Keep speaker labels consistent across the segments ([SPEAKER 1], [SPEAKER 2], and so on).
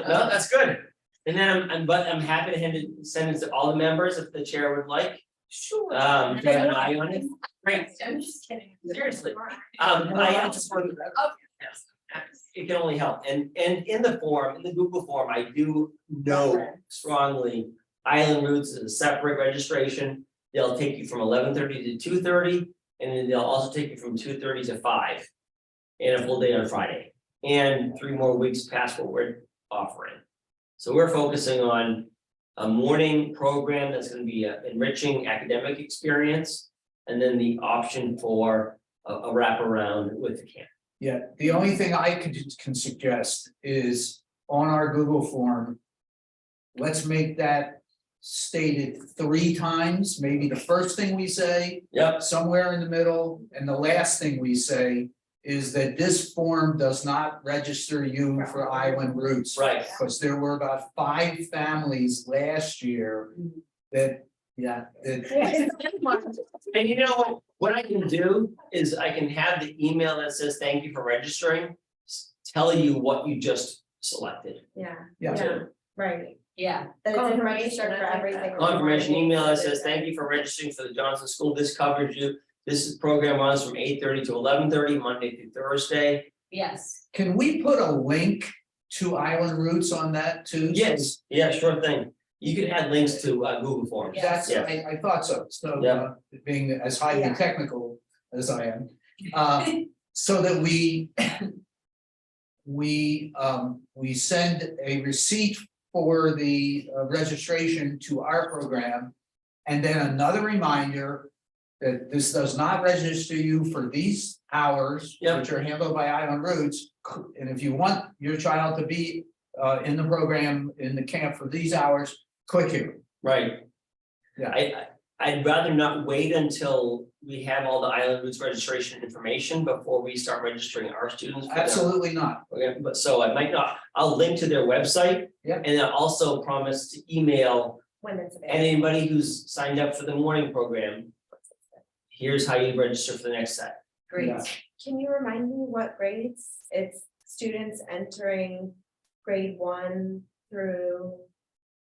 [SPEAKER 1] No, that's good.
[SPEAKER 2] And then I'm, I'm, but I'm happy to hand it, send it to all the members if the chair would like,
[SPEAKER 3] Sure.
[SPEAKER 2] um, to have an eye on it.
[SPEAKER 3] Great, I'm just kidding, seriously.
[SPEAKER 2] Um, I I just want, it can only help, and, and in the form, in the Google form, I do know strongly. Island routes is a separate registration, they'll take you from eleven thirty to two thirty, and then they'll also take you from two thirty to five. And a full day on Friday, and three more weeks past what we're offering. So we're focusing on a morning program that's gonna be an enriching academic experience. And then the option for a, a wraparound with the camp.
[SPEAKER 1] Yeah, the only thing I could can suggest is on our Google form. Let's make that stated three times, maybe the first thing we say,
[SPEAKER 2] Yep,
[SPEAKER 1] somewhere in the middle, and the last thing we say. Is that this form does not register you for island routes.
[SPEAKER 2] right,
[SPEAKER 1] Because there were about five families last year that, yeah, that,
[SPEAKER 2] and you know, what? what I can do is I can have the email that says, thank you for registering. s- Tell you what you just selected.
[SPEAKER 3] Yeah,
[SPEAKER 1] yeah,
[SPEAKER 3] yeah, right.
[SPEAKER 4] Yeah.
[SPEAKER 3] That it's
[SPEAKER 4] Confirmation,
[SPEAKER 3] information
[SPEAKER 4] I
[SPEAKER 3] for
[SPEAKER 4] like
[SPEAKER 3] everything.
[SPEAKER 4] that.
[SPEAKER 2] Confirmation email that says, thank you for registering for the Johnson School, this covers you. This is- program runs from eight thirty to eleven thirty, Monday through Thursday.
[SPEAKER 4] Yes,
[SPEAKER 1] can we put a link to island routes on that too? So
[SPEAKER 2] Yes, yeah, sure thing. You can add links to uh, Google Forms.
[SPEAKER 1] That's,
[SPEAKER 2] Yeah.
[SPEAKER 1] I, I thought so, so,
[SPEAKER 2] Yeah.
[SPEAKER 1] uh, being as highly
[SPEAKER 3] Yeah.
[SPEAKER 1] technical as I am, uh, so that we. We, um, we send a receipt for the uh, registration to our program. And then another reminder that this does not register you for these hours,
[SPEAKER 2] Yep.
[SPEAKER 1] which are handled by Island Roots. And if you want your child to be, uh, in the program, in the camp for these hours, click here.
[SPEAKER 2] Right.
[SPEAKER 1] Yeah.
[SPEAKER 2] I, I, I'd rather not wait until we have all the Island Roots registration information before we start registering our students. for their-
[SPEAKER 1] Absolutely not.
[SPEAKER 2] Okay, but so I might not, I'll link to their website.
[SPEAKER 1] Yeah.
[SPEAKER 2] And I also promise to email
[SPEAKER 3] When it's available.
[SPEAKER 2] anybody who's signed up for the morning program. Here's how you register for the next set.
[SPEAKER 4] great.
[SPEAKER 1] Yeah.
[SPEAKER 3] Can you remind me what grades? It's students entering grade one through,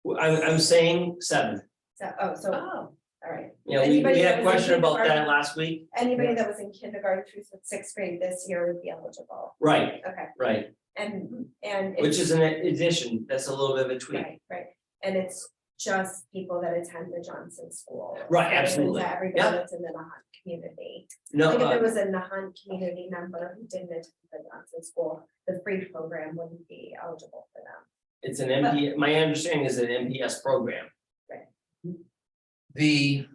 [SPEAKER 2] Well, I'm, I'm saying seven.
[SPEAKER 3] so, oh, so,
[SPEAKER 4] Oh,
[SPEAKER 3] all right.
[SPEAKER 2] You know, we, we
[SPEAKER 3] Anybody
[SPEAKER 2] had
[SPEAKER 3] that
[SPEAKER 2] a
[SPEAKER 3] was in
[SPEAKER 2] question about that
[SPEAKER 3] kindergarten?
[SPEAKER 2] last week.
[SPEAKER 3] Anybody that was in kindergarten through sixth grade this year would be eligible.
[SPEAKER 2] Right,
[SPEAKER 3] Okay,
[SPEAKER 2] right,
[SPEAKER 3] and, and. it's-
[SPEAKER 2] which is an addition. That's a little bit of a tweak.
[SPEAKER 3] Right, right, and it's just people that attend the Johnson School.
[SPEAKER 2] Right,
[SPEAKER 3] It isn't
[SPEAKER 2] absolutely.
[SPEAKER 3] Everybody
[SPEAKER 2] Yeah.
[SPEAKER 3] that's in the Nahant community.
[SPEAKER 2] No,
[SPEAKER 3] Like if
[SPEAKER 2] uh,
[SPEAKER 3] there was a Nahant community member who didn't attend the Johnson School, the free program wouldn't be eligible for them.
[SPEAKER 2] It's an MP, my understanding is an MPS program.
[SPEAKER 1] The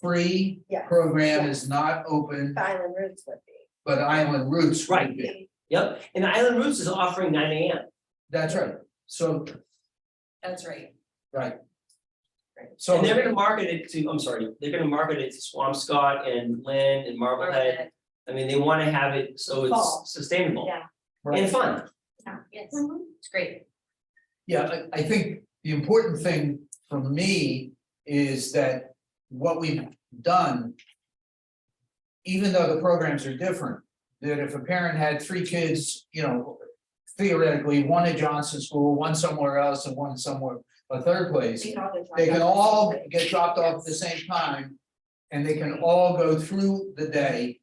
[SPEAKER 1] free
[SPEAKER 3] Yeah.
[SPEAKER 1] program is not open,
[SPEAKER 4] Mm-hmm.
[SPEAKER 3] The Island Roots would be.
[SPEAKER 1] but Island Roots
[SPEAKER 2] Right.
[SPEAKER 1] would be.
[SPEAKER 2] Yep, and Island Roots is offering nine AM.
[SPEAKER 1] That's right. So,
[SPEAKER 4] that's right.
[SPEAKER 1] right.
[SPEAKER 3] Right.
[SPEAKER 1] So,
[SPEAKER 2] And they're gonna market it to, I'm sorry, they're gonna market it to Swampscott and Lynn and Marblehead.
[SPEAKER 4] Marblehead,
[SPEAKER 2] I mean, they wanna have it so
[SPEAKER 3] Fall.
[SPEAKER 2] it's sustainable
[SPEAKER 3] Yeah.
[SPEAKER 2] and fun.
[SPEAKER 4] Yes,
[SPEAKER 3] Mm-hmm.
[SPEAKER 4] it's great.
[SPEAKER 1] yeah, I, I think the important thing for me is that what we've done. Even though the programs are different, that if a parent had three kids, you know, theoretically, one at Johnson School, one somewhere else, and one somewhere, a third place.
[SPEAKER 3] We all get
[SPEAKER 1] They can all
[SPEAKER 3] dropped out.
[SPEAKER 1] get dropped off at the same time. And they can all go through the day.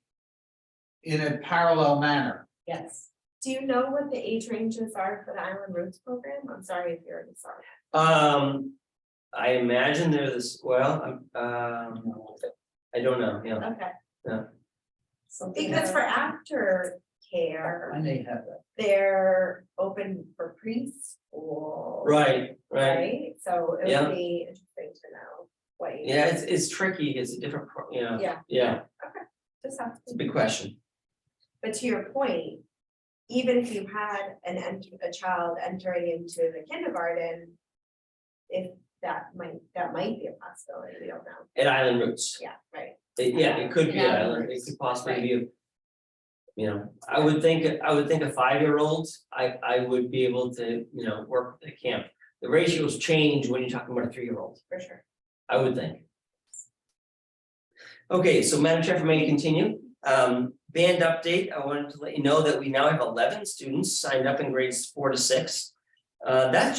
[SPEAKER 1] In a parallel manner.
[SPEAKER 4] Yes.
[SPEAKER 3] Do you know what the age ranges are for the Island Roots program? I'm sorry if you already saw it.
[SPEAKER 2] Um, I imagine they're this, well, I'm, um, I don't know, yeah.
[SPEAKER 3] Okay.
[SPEAKER 2] Yeah.
[SPEAKER 3] Because for after care.
[SPEAKER 1] I may have that.
[SPEAKER 3] they're open for preschool.
[SPEAKER 2] Right, right.
[SPEAKER 3] Right, so it
[SPEAKER 2] Yeah.
[SPEAKER 3] would be interesting to know what you.
[SPEAKER 2] Yeah, it's, it's tricky. It's a different, pro- you know,
[SPEAKER 3] Yeah.
[SPEAKER 2] yeah,
[SPEAKER 3] Just have
[SPEAKER 2] it's
[SPEAKER 3] to.
[SPEAKER 2] a big question.
[SPEAKER 3] But to your point, even if you had an ent- a child entering into the kindergarten. If that might, that might be a possibility, we don't know,
[SPEAKER 2] At Island Roots.
[SPEAKER 3] yeah, right,
[SPEAKER 2] It- Yeah, it could be,
[SPEAKER 4] Yeah.
[SPEAKER 2] I learned, it could possibly be. a- You know, I would think, I would think a five-year-old, I, I would be able to, you know, work at camp. The ratios change when you're talking about a three-year-old,
[SPEAKER 3] for sure.
[SPEAKER 2] I would think. Okay, so Madam Chair, if I may continue, um, band update, I wanted to let you know that we now have eleven students signed up in grades four to six. Uh, that's